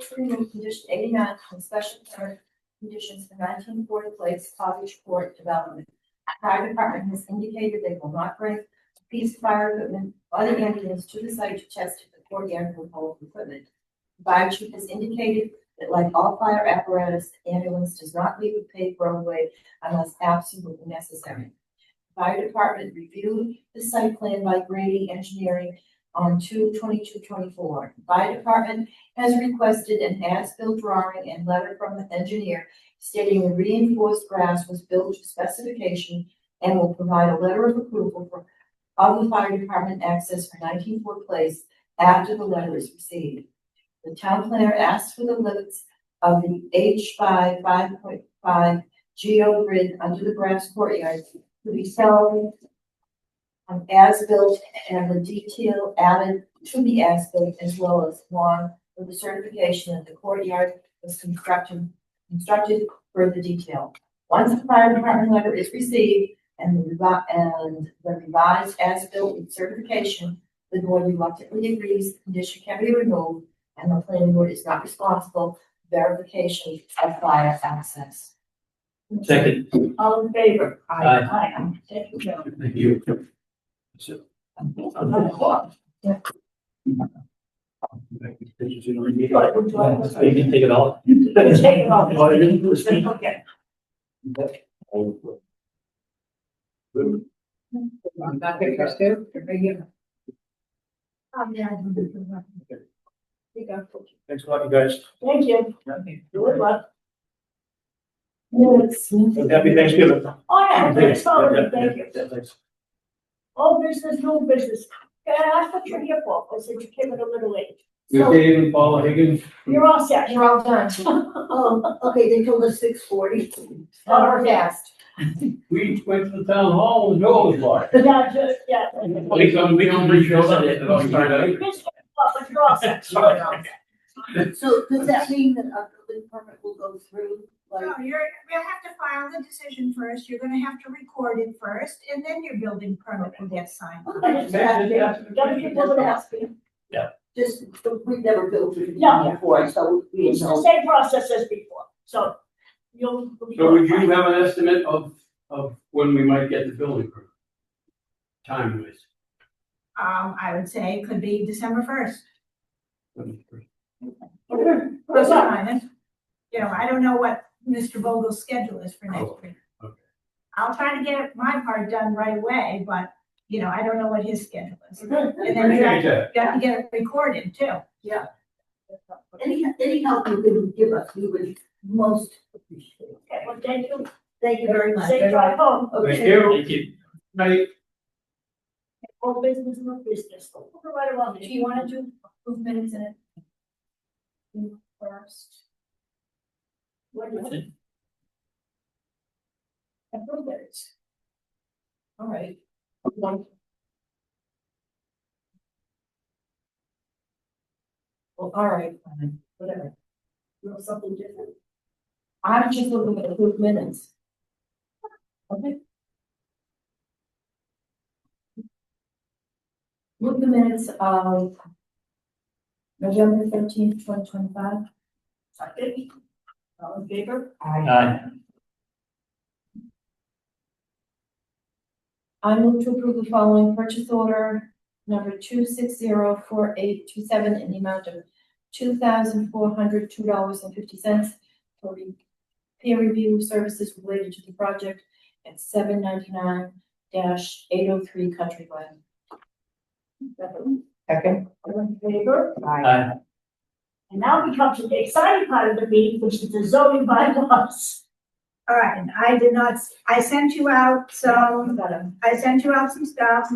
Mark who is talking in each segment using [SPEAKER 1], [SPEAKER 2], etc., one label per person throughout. [SPEAKER 1] to remove condition eighty-nine from special permit conditions for nineteen Ford Place Cottage Court Development. Fire department has indicated they will not bring a piece of fire equipment or the ambulance to the site to test if the court air will hold equipment. The Fire chief has indicated that like all fire apparatus, the ambulance does not leave a paved roadway unless absolutely necessary. Fire department reviewed the site plan by Grady Engineering on two twenty-two twenty-four. Fire department has requested an as-built drawing and letter from the engineer stating the reinforced grass was built to specification and will provide a letter of approval for of the fire department access for nineteen Ford Place after the letter is received. The town planner asks for the limits of the H five, five point five geo grid under the grass courtyard to be shown on as-built and the detail added to the as-built as well as one with the certification that the courtyard was constructed, constructed further detail. Once the fire department letter is received and the revi- and the revised as-built with certification, the board reluctantly agrees the condition can be removed and the planning board is not responsible for verification of fire access.
[SPEAKER 2] Second,
[SPEAKER 1] All in favor?
[SPEAKER 2] Aye.
[SPEAKER 1] Aye. Thank you, Joe.
[SPEAKER 2] thank you. So, um, Maybe take it all.
[SPEAKER 3] Take it off.
[SPEAKER 2] Well, you can speak.
[SPEAKER 3] Okay.
[SPEAKER 4] I'm not gonna go to,
[SPEAKER 3] Oh, You go.
[SPEAKER 2] Thanks a lot, you guys.
[SPEAKER 3] Thank you. Good luck.
[SPEAKER 2] Happy Thanksgiving.
[SPEAKER 3] Oh, yeah, that's all.
[SPEAKER 2] Yeah, yeah,
[SPEAKER 3] Thank you.
[SPEAKER 2] yeah, thanks.
[SPEAKER 3] All business, no business. Yeah, that's what you're here for, was that you came at a little late.
[SPEAKER 2] With
[SPEAKER 3] So
[SPEAKER 2] Dave and Paula Higgins.
[SPEAKER 3] you're all
[SPEAKER 2] Mm.
[SPEAKER 3] set.
[SPEAKER 1] You're all done.
[SPEAKER 5] Oh, okay, they told us six forty. Um,
[SPEAKER 1] Hour fast.
[SPEAKER 2] We went to the town hall and Joel was like.
[SPEAKER 3] Yeah, just, yeah.
[SPEAKER 2] We don't, we don't reach out on it. I'll start out.
[SPEAKER 3] Business, but you're all set.
[SPEAKER 2] Sorry.
[SPEAKER 5] So does that mean that our building permit will go through, like,
[SPEAKER 6] No, you're, we'll have to file the decision first, you're gonna have to record it first, and then your building permit will get signed.
[SPEAKER 3] I just have to- Gotta keep moving out.
[SPEAKER 5] just, we've never built through
[SPEAKER 3] Yeah.
[SPEAKER 5] before, so we
[SPEAKER 3] It's
[SPEAKER 5] didn't know.
[SPEAKER 3] the same process as before, so you'll.
[SPEAKER 2] So would you have an estimate of, of when we might get the building permit? Time wise.
[SPEAKER 6] Um, I would say it could be December first.
[SPEAKER 3] Okay.
[SPEAKER 6] You
[SPEAKER 3] That's all.
[SPEAKER 6] know, I don't know what Mr. Vogel's schedule is for next week.
[SPEAKER 2] okay.
[SPEAKER 6] I'll try to get my part done right away, but, you know, I don't know what his schedule is.
[SPEAKER 3] Okay.
[SPEAKER 6] And then you
[SPEAKER 2] Appreciate
[SPEAKER 6] have
[SPEAKER 2] that.
[SPEAKER 6] got to get it recorded too.
[SPEAKER 5] Any, any help you can give us, we would most appreciate.
[SPEAKER 3] Okay, well, thank you.
[SPEAKER 5] Thank you very much.
[SPEAKER 3] Safe drive home.
[SPEAKER 2] Thank
[SPEAKER 5] Okay.
[SPEAKER 2] you. Thank you. Night.
[SPEAKER 3] All business, no business. Right along.
[SPEAKER 1] Do you wanna do approved minutes in it? First.
[SPEAKER 3] What do you want? And blueberries.
[SPEAKER 1] All right. Well, all right, fine, whatever.
[SPEAKER 3] You want something different?
[SPEAKER 1] I'm just looking at approved minutes. Okay. Look the minutes of uh, November thirteenth, twenty twenty-five.
[SPEAKER 3] Something? All in favor?
[SPEAKER 2] Aye.
[SPEAKER 1] I move to approve the following purchase order number two six zero four eight two seven in the amount of two thousand four hundred two dollars and fifty cents for re- peer review services related to the project at seven ninety-nine eight oh three Countryway.
[SPEAKER 3] Second.
[SPEAKER 4] Second.
[SPEAKER 3] All in favor?
[SPEAKER 2] Aye.
[SPEAKER 3] And now we come to the exciting part of the meeting, which is the zoning bylaws.
[SPEAKER 6] All right, and I did not, s- I sent you out some I sent you out some stuff.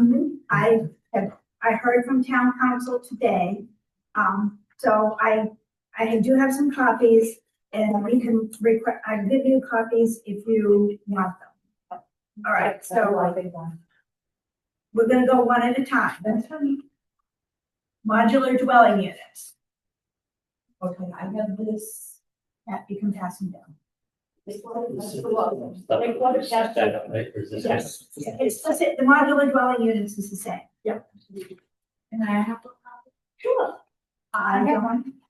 [SPEAKER 6] I have, I heard from town council today. Um, so I, I do have some copies and we can request, I can give you copies if you want them. All right, so we're gonna go one at a time.
[SPEAKER 1] That's funny.
[SPEAKER 6] Modular dwelling units,
[SPEAKER 1] Okay, I have this.
[SPEAKER 6] that you can pass them down.
[SPEAKER 1] This one, that's the one.
[SPEAKER 3] Like, what is that?
[SPEAKER 2] Stand up, right? Or is this-
[SPEAKER 3] Yes.
[SPEAKER 6] It's the, sa- the modular dwelling units is the same.
[SPEAKER 3] Yep.
[SPEAKER 6] And I have,
[SPEAKER 3] Sure.
[SPEAKER 6] I don't,